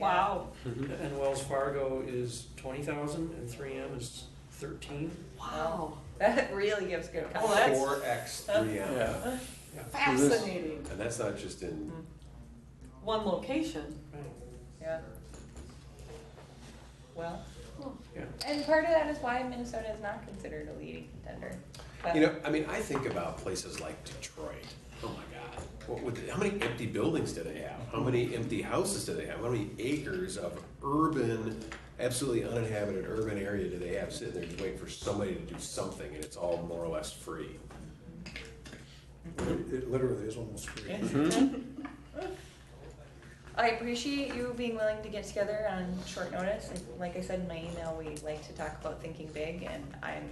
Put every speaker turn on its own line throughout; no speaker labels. Wow,
And Wells Fargo is twenty thousand, and three M is thirteen.
wow. That really gives good
Oh,
coverage.
that's-
Four X three M.
Yeah.
Fascinating.
And that's not just in,
Mm-hmm. One location.
Right.
Yeah. Well,
Yeah.
and part of that is why Minnesota is not considered a leading contender. But-
you know, I mean, I think about places like Detroit. Oh my God. What would, how many empty buildings do they have? How many empty houses do they have? How many acres of urban, absolutely uninhabited urban area do they have sitting there just waiting for somebody to do something and it's all more or less free?
It it literally is almost free.
I appreciate you being willing to get together on short notice. And Like I said in my email, we like to talk about thinking big, and I'm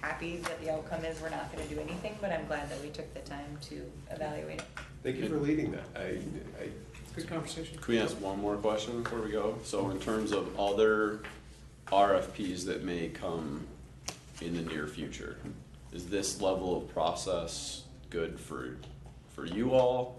happy that the outcome is we're not gonna do anything, but I'm glad that we took the time to evaluate it.
Thank you for leading that. I, I,
Good conversation.
Can we ask one more question before we go? So in terms of other RFPs that may come in the near future, is this level of process good for, for you all?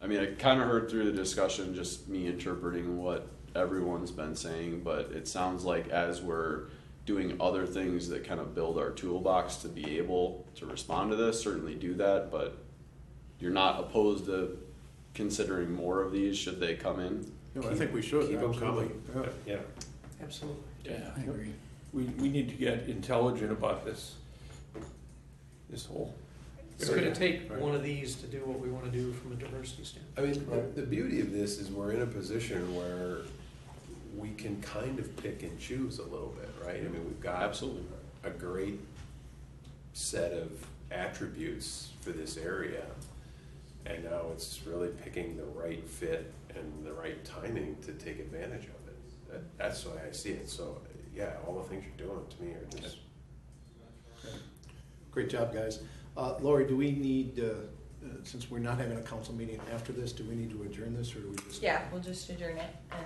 I mean, I kind of heard through the discussion, just me interpreting what everyone's been saying, but it sounds like as we're doing other things that kind of build our toolbox to be able to respond to this, certainly do that, but you're not opposed to considering more of these should they come in?
No, I think we should.
keep them coming.
absolutely. Yeah.
Yeah.
Absolutely.
Yeah, I agree. We, we need to get intelligent about this, this whole.
It's gonna take one of these to do what we wanna do from a diversity standpoint.
I mean, the, the beauty of this is we're in a position where we can kind of pick and choose a little bit, right? I mean, we've got
Absolutely.
a great set of attributes for this area. And now it's really picking the right fit and the right timing to take advantage of it. That, that's the way I see it. So, yeah, all the things you're doing to me are just,
Great job, guys. Uh, Lori, do we need, uh, uh, since we're not having a council meeting after this, do we need to adjourn this or do we just?
Yeah, we'll just adjourn it and,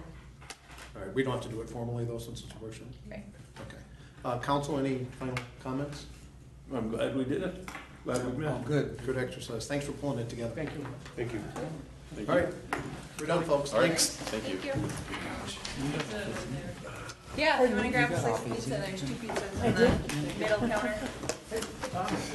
All right, we don't have to do it formally though, since it's a workshop?
right.
Okay. Uh, Council, any final comments?
I'm glad we did it. Glad we
Oh,
met.
Good, good exercise. Thanks for pulling it together. Thank you.
thank you.
Thank
All
you.
right, we're done, folks.
All right.
Thanks.
Thank you.
Yeah, if you wanna grab a slice of pizza, there's two pizzas in the middle counter.